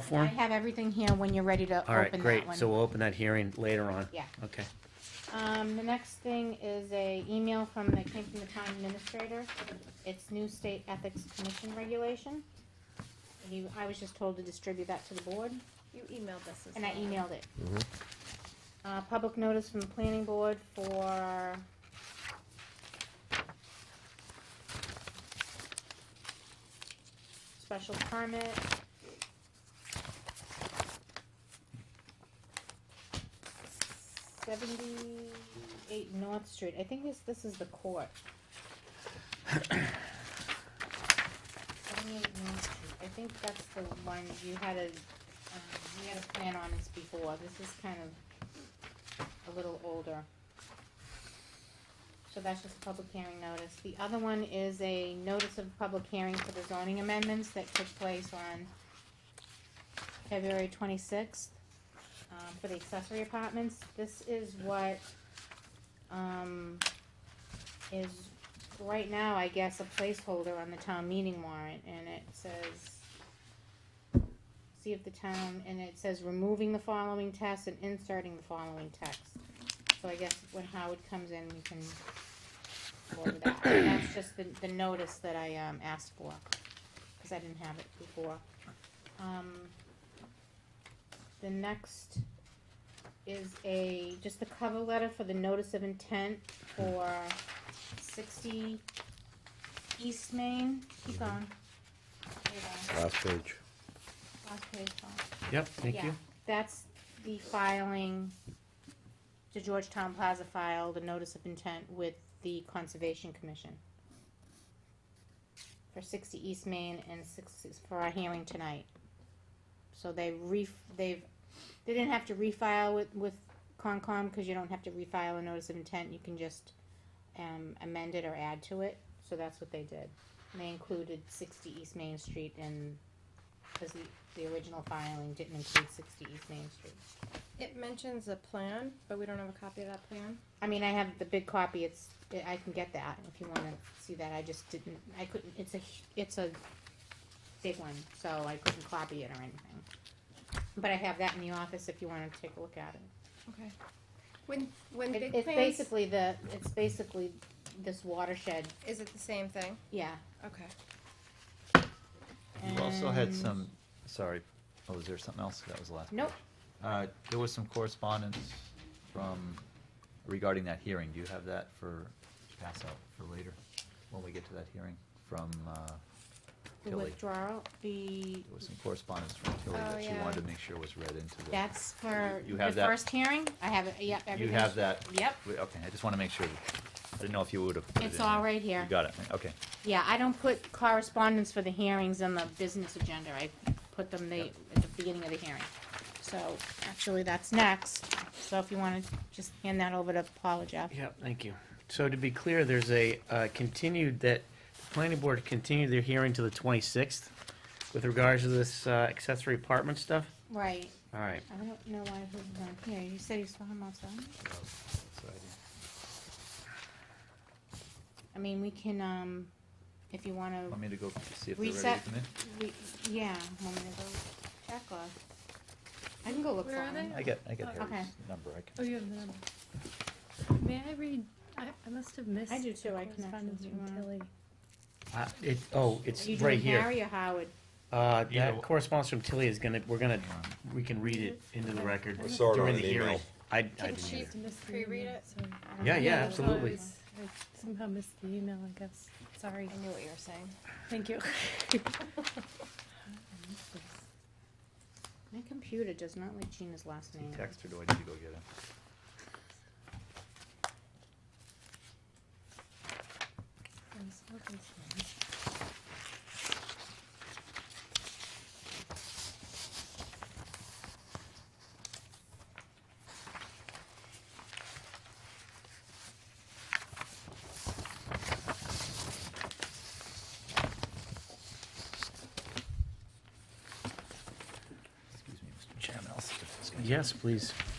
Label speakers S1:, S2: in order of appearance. S1: for
S2: I
S1: him?
S2: have everything here when you're ready to
S1: All right,
S2: open
S1: great,
S2: that
S1: so
S2: one.
S1: we'll open that hearing later on.
S2: Yeah.
S1: Okay,
S2: Um, the next thing is a email from, that came from the town administrator. It's new state ethics commission regulation. You, I was just told to distribute that to the board,
S3: You emailed us as
S2: and I
S3: well.
S2: emailed it.
S4: Mhm.
S2: Uh, public notice from the planning board for special permit. Seventy-eight North Street, I think this, this is the court. Seventy-eight North Street, I think that's the one you had a, um, you had a plan on this before, this is kind of a little older. So that's just a public hearing notice, the other one is a notice of public hearing for the zoning amendments that took place on February twenty-sixth um, for the accessory apartments. This is what, um, is right now, I guess, a placeholder on the town meeting warrant, and it says, see if the town, and it says removing the following text and inserting the following text. So I guess when Howard comes in, we can go over that. That's just the, the notice that I, um, asked for, cause I didn't have it before. Um, the next is a, just the cover letter for the notice of intent for sixty East Main, keep going. There you go.
S4: Last page.
S2: Last page, Paul.
S1: yep, thank
S2: Yeah,
S1: you.
S2: That's the filing, the Georgetown Plaza filed a notice of intent with the Conservation Commission for sixty East Main and six, for our hearing tonight. So they re, they've, they didn't have to refile with, with Concom, cause you don't have to refile a notice of intent, you can just um, amend it or add to it, so that's what they did. And they included sixty East Main Street and because the, the original filing didn't include sixty East Main Street.
S3: It mentions a plan, but we don't have a copy of that plan.
S2: I mean, I have the big copy, it's, I can get that if you wanna see that, I just didn't, I couldn't, it's a, hu- it's a big one, so I couldn't copy it or anything. But I have that in the office if you wanna take a look at it.
S3: Okay. When, when
S2: It-
S3: big
S2: It's
S3: plans,
S2: basically the, it's basically this watershed,
S3: is it the same thing?
S2: yeah.
S3: Okay.
S5: You also had
S2: and-
S5: some, sorry, oh, was there something else that was the last?
S2: Nope,
S5: Uh, there was some correspondence from, regarding that hearing, do you have that for, pass out for later, when we get to that hearing, from, uh,
S2: the
S5: Tilly?
S2: withdrawal, the,
S5: There was some correspondence from Tilly
S3: Oh,
S5: that she
S3: yeah.
S5: wanted to make sure was read into the.
S2: that's for
S5: You
S2: the
S5: have that?
S2: first hearing, I have it, yep,
S5: You
S2: everything's.
S5: have that?
S2: Yep.
S5: Wait, Okay, I just wanna make sure, I didn't know if you would've. put it
S2: It's
S5: in there.
S2: all right here.
S5: You got it, okay.
S2: Yeah, I don't put correspondence for the hearings on the business agenda, I put them the, at the beginning of the hearing. So, actually, that's next, so if you wanna just hand that over to Paula Jeff.
S1: Yep, thank you. So to be clear, there's a uh, continued, that the planning board continued their hearing to the 26th with regards to this uh, accessory apartment stuff?
S2: Right,
S1: All right,
S2: I don't know why he was not here, you said you saw him outside? I mean, we can, um, if you wanna,
S5: Want me to go see if they're ready to
S2: Reset.
S5: come in?
S2: we, yeah, want me to go check or? I can go look for
S6: Where are
S2: him.
S6: they?
S5: I get, I get
S6: Okay.
S5: Harry's number, I
S6: Oh,
S5: can.
S6: you have the number. May I read, I, I must have missed.
S2: do
S6: the
S2: too, I can actually
S6: correspondence
S2: do
S6: from
S2: one.
S6: Tilly.
S1: Uh, it, oh, it's
S2: You
S1: right
S2: doing
S1: here.
S2: Harry or Howard?
S1: Uh,
S7: Either
S1: That
S7: one.
S1: correspondence from Tilly is gonna, we're gonna,
S5: Hang on.
S1: we can read it into the record
S6: I
S4: saw it
S1: during
S4: on
S1: the
S4: an email.
S1: hearing. I, I
S3: Can
S1: didn't
S3: she-
S1: either.
S6: Must have missed the
S3: Pre-read
S6: email,
S3: it?
S6: sorry.
S2: I don't
S1: Yeah,
S2: know.
S1: yeah,
S6: I
S1: absolutely.
S6: was- I somehow missed the email, I guess. Sorry.
S3: I knew what you were saying.
S6: Thank you.
S2: My computer does not like Gina's last
S5: Is he
S2: name.
S5: text or do I need to go get him?
S6: I'm so concerned.
S5: Excuse me, Mr. Chairman, I'll see if this guy-
S1: Yes, please.